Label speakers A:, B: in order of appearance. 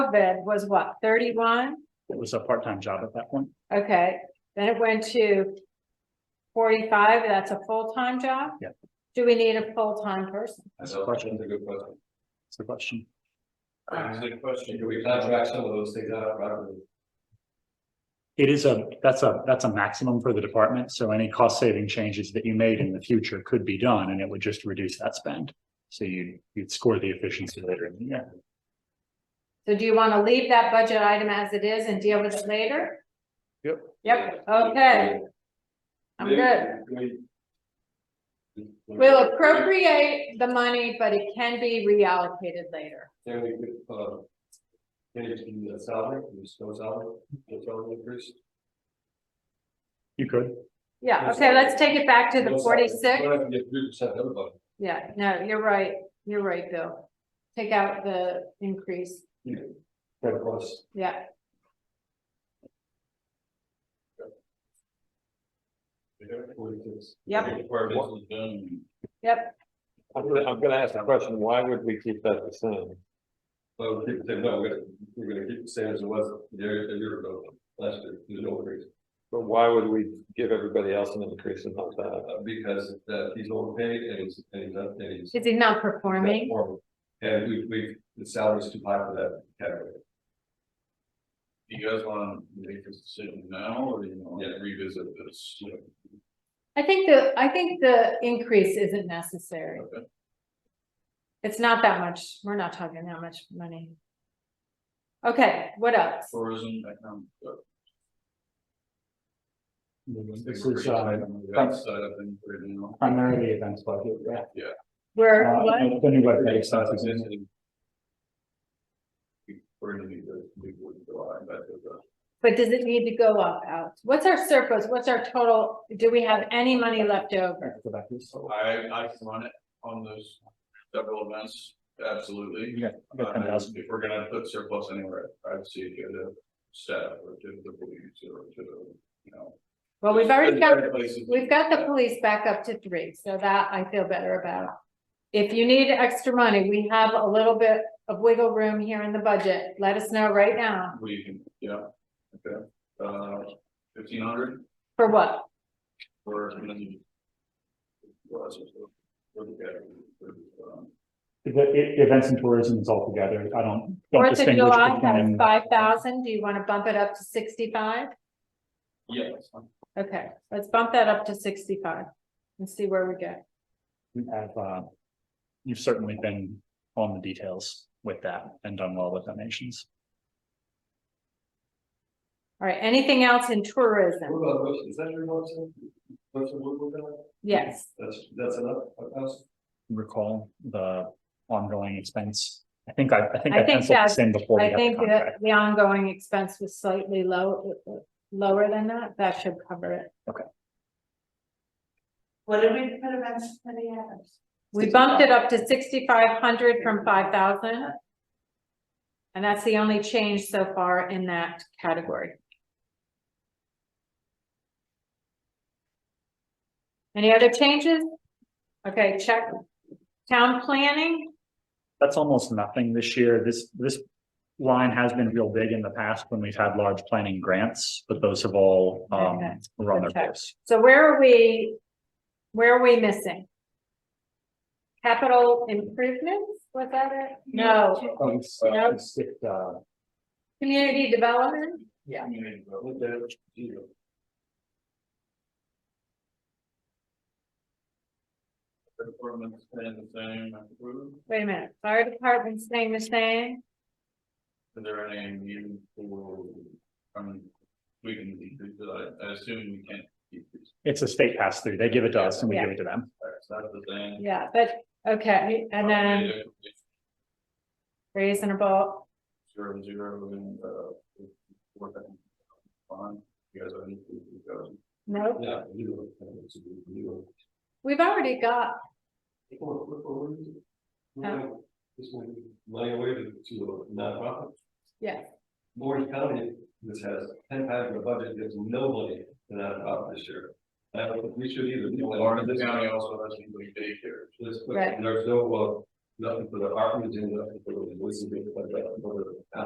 A: bid was what, thirty-one?
B: It was a part-time job at that point.
A: Okay, then it went to forty-five, that's a full-time job?
B: Yeah.
A: Do we need a full-time person?
C: That's a question, that's a good question.
B: That's the question.
A: Uh-huh.
C: That's a good question. Do we contract some of those things out properly?
B: It is a, that's a, that's a maximum for the department. So any cost-saving changes that you made in the future could be done and it would just reduce that spend. So you, you'd score the efficiency later in the year.
A: So do you want to leave that budget item as it is and deal with it later?
B: Yep.
A: Yep, okay, I'm good.
C: Maybe we-
A: We'll appropriate the money, but it can be reallocated later.
C: Then we could, uh, get it to the salary, the snow salary, the salary increase.
B: You could.
A: Yeah, okay, let's take it back to the forty-six.
C: We're not gonna get three percent everybody.
A: Yeah, no, you're right, you're right, Bill. Take out the increase,
C: you know, But of course,
A: yeah,
C: we don't- we just-
A: Yep.
C: Departments is done.
A: yep,
D: I'm gonna, I'm gonna ask a question, why would we keep that the same?
C: Well, people say, no, we're gonna, we're gonna keep the same as it was a year, a year ago, last year, there's no increase.
D: But why would we give everybody else an increase and not that?
C: Uh, because, uh, he's overpaid and he's, and he's, not- and he's.
A: is he not performing?
C: And we, we, the salary's too high for that category.
E: Do you guys wanna make this decision now, or do you wanna revisit this?
A: I think the, I think the increase isn't necessary.
E: Okay.
A: It's not that much, we're not talking that much money. Okay, what else?
E: Tourism, economic. uh,
B: This
E: pretty
B: is uh,
E: tight on
D: um,
E: that side of things right now.
B: primarily events budget, yeah.
A: We're,
B: Uh,
A: what?
B: The new
E: But
B: webpage
E: it's
B: starts
E: not
B: existing.
E: existing. We're gonna need to, we would go out, but uh,
A: But does it need to go up out? What's our surplus? What's our total? Do we have any money left over?
B: Go back to this.
E: I, uh, I can run it on those several events, absolutely.
B: You got, you got ten
E: Uh,
B: thousand.
E: If we're gonna put surplus anywhere, I'd see it go to staff or to the police or to, the, you know.
A: Well, we've already got,
E: Places.
A: we've got the police back up to three, so that I feel better about. If you need extra money, we have a little bit of wiggle room here in the budget. Let us know right now.
E: We can, yeah, okay, uh, fifteen hundred
A: For what?
E: or. Well, that's just- um,
B: The, i- events and tourism is all together. I don't. don't
A: Fourth of
B: distinguish
A: July has
B: between-
A: five thousand. Do you want to bump it up to sixty-five?
E: Yeah, that's fine.
A: Okay, let's bump that up to sixty-five and see where we go.
B: you have, uh, you've certainly been on the details with that and done well with donations.
A: All right, anything else in tourism?
C: What about those, is that your motion? Motion, what, what, that?
A: Yes.
C: that's, that's enough, a thousand?
B: Recall the ongoing expense. I think I, I think
A: I
B: I
A: think
B: penciled
A: that's-
B: this in before.
A: I
B: we had the
A: think
B: contract.
A: that the ongoing expense was slightly low, lower than that, that should cover it.
B: Okay.
A: What did we put events for the others? We bumped it up to sixty-five hundred from five thousand. And that's the only change so far in that category. Any other changes? Okay, check. Town planning?
B: That's almost nothing this year. This, this line has been real big in the past when we've had large planning grants, but those have all, um,
A: Okay.
B: run their
A: Okay.
B: course.
A: So where are we, where are we missing? Capital improvements, was that it? No, Yep.
B: uh,
A: community development,
C: Yeah. Zero.
E: The Department's staying the same, I approve.
A: wait a minute, fire department staying the same,
E: Is there any need for, I mean, we can decrease it, I, I assume we can't decrease,
B: It's a state pass through. They give it to us and we give it to them.
E: that's not the thing.
A: yeah, but, okay, and then reasonable,
E: Zero, zero, and, uh, four thousand. Fine, you guys are. you guys are-
A: no,
C: Yeah, zero, that's zero.
A: we've already got,
C: What- what- what was it?
A: Oh.
C: This one, money away to, to a nonprofit.
A: yeah,
C: Orange County, this has ten times the budget, gives no money to nonprofit this year. I don't think we should either. We don't want
E: Lawrence
C: this-
E: County also has people daycare.
C: this-
A: Right.
C: There's no, uh, nothing for the apartments and nothing for the, this is, but, but,